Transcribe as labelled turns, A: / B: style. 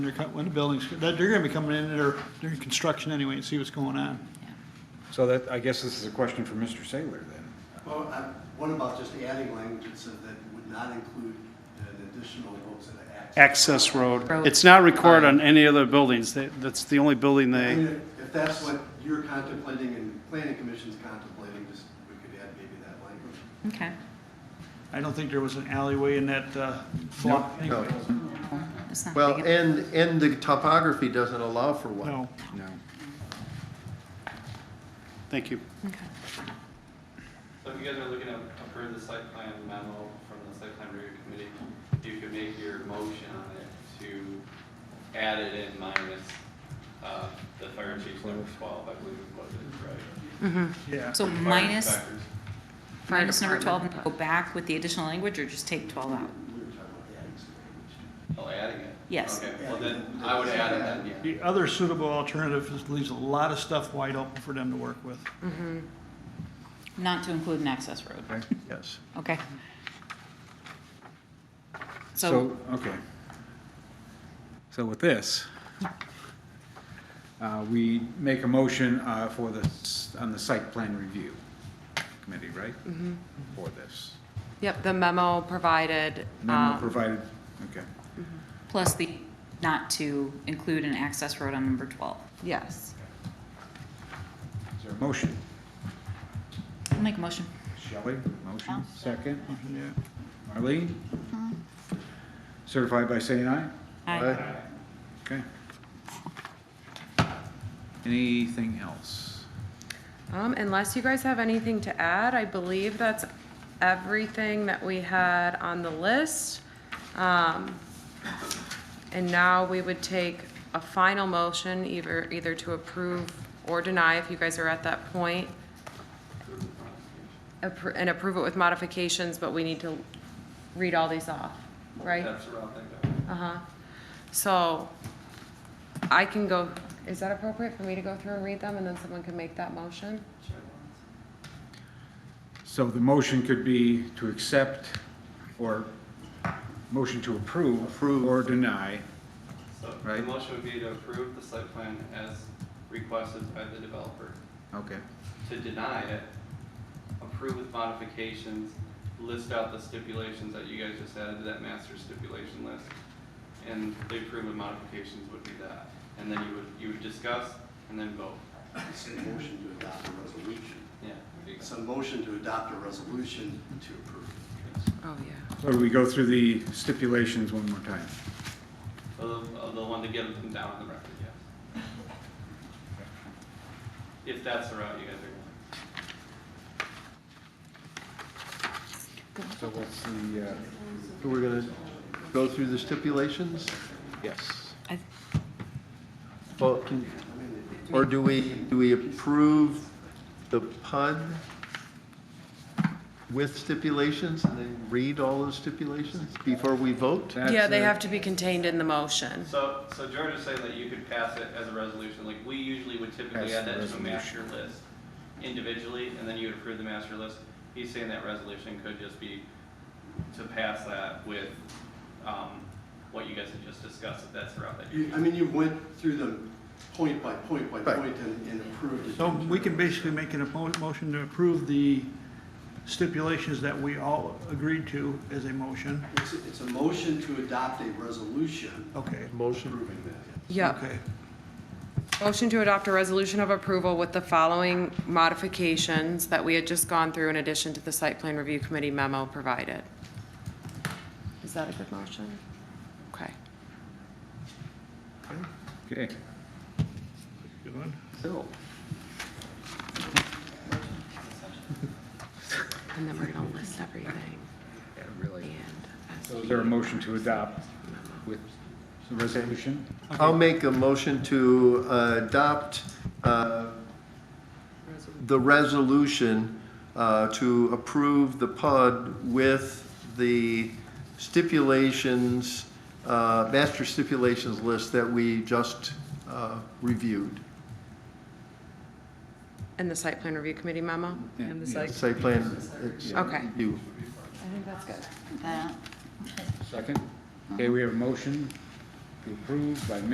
A: They're cut- When the buildings, that- they're gonna be coming in there during construction anyway and see what's going on.
B: So that, I guess this is a question for Mr. Saylor then.
C: Well, I- what about just adding language that says that would not include an additional roads and access?
D: access road.
E: Road.
D: It's not recorded on any other buildings. That- That's the only building
C: I
D: they,
C: mean, if- if that's what you're contemplating and planning commission's contemplating, just, we could add maybe that language.
E: Okay.
A: I don't think there was an alleyway in that uh, block anyway.
E: That's not
F: Well,
E: big.
F: and, and the topography doesn't allow for one.
A: No.
B: No.
D: thank you.
E: Okay.
G: So if you guys are looking to approve the site plan memo from the site plan review committee, you could make your motion on it to add it in minus, uh, the fire chief's number twelve, I believe it was, right?
A: Yeah.
E: So
G: Fire
E: minus,
G: inspectors.
E: minus number 12, and go back with the additional language, or just take 12 out?
G: Oh, adding it?
E: Yes.
G: Okay, well then, I would add it then, yeah.
A: The other suitable alternative is leaves a lot of stuff wide open for them to work with.
E: Not to include an access road.
A: Yes.
E: Okay. So,
B: So, okay. So with this, uh, we make a motion uh, for the, s- on the site plan review committee, right? For this.
H: Yep, the memo provided,
B: Memo
H: um,
B: provided, okay.
E: plus the not to include an access road on number 12.
H: yes.
B: Is there a motion?
E: I'll make a motion.
B: Shelley, motion, second.
A: Yeah.
B: Uh-huh. Marlene? Certified by saying aye?
E: Aye.
F: Right?
B: Okay. Anything else?
H: Um, Unless you guys have anything to add, I believe that's everything that we had on the list. Um, And now we would take a final motion, either, either to approve or deny, if you guys are at that point. Appro- And approve it with modifications, but we need to read all these off, right?
G: That's the route I go.
H: Uh-huh. So I can go, is that appropriate for me to go through and read them and then someone can make that motion?
B: So the motion could be to accept or motion to approve. Or deny.
G: So the
B: Right.
G: motion would be to approve the site plan as requested by the developer.
B: Okay.
G: to deny it, approve with modifications, list out the stipulations that you guys just added to that master stipulation list, and the approve with modifications would be that. And then you would, you would discuss and then vote.
C: It's a motion to adopt a resolution.
G: Yeah. there you
C: It's
G: go.
C: a motion to adopt a resolution to approve.
H: Oh, yeah.
B: So we go through the stipulations one more time.
G: Of, of the one to get them down on the record, yes. If that's the route you guys are going.
B: So what's the, uh,
F: So we're gonna go through the stipulations?
B: yes.
E: I-
F: Well, can- Or do we, do we approve the PUD with stipulations and then read all the stipulations before we vote?
B: That's
H: Yeah, they
B: a-
H: have to be contained in the motion.
G: So, so George is saying that you could pass it as a resolution, like we usually would typically
B: Pass
G: add
B: the
G: that to a master list individually, and then you would approve the master list. He's saying that resolution could just be to pass that with, um, what you guys had just discussed, if that's the route that you.
C: You- I mean, you went through them point by point by
F: Right.
C: point and and approved it.
A: So we can basically make an oppo- motion to approve the stipulations that we all agreed to as a motion.
C: It's a- It's a motion to adopt a resolution
A: Okay.
F: Motion
C: approving that.
H: Yeah,
A: Okay.
H: motion to adopt a resolution of approval with the following modifications that we had just gone through in addition to the site plan review committee memo provided. Is that a good motion? Okay.
B: Okay.
A: Good one.
F: Bill.
H: And then we're going to list everything
B: Yeah, Really.
H: and. uh,
B: So is there a motion to adopt with the resolution?
F: I'll make a motion to uh, adopt uh, the resolution uh, to approve the PUD with the stipulations, uh, master stipulations list that we just uh, reviewed.
H: And the site plan review committee memo?
B: And
F: Site plan. it's
H: Okay.
F: You.
H: I think that's good.
E: That.
B: Second? Okay, we have a motion be approved by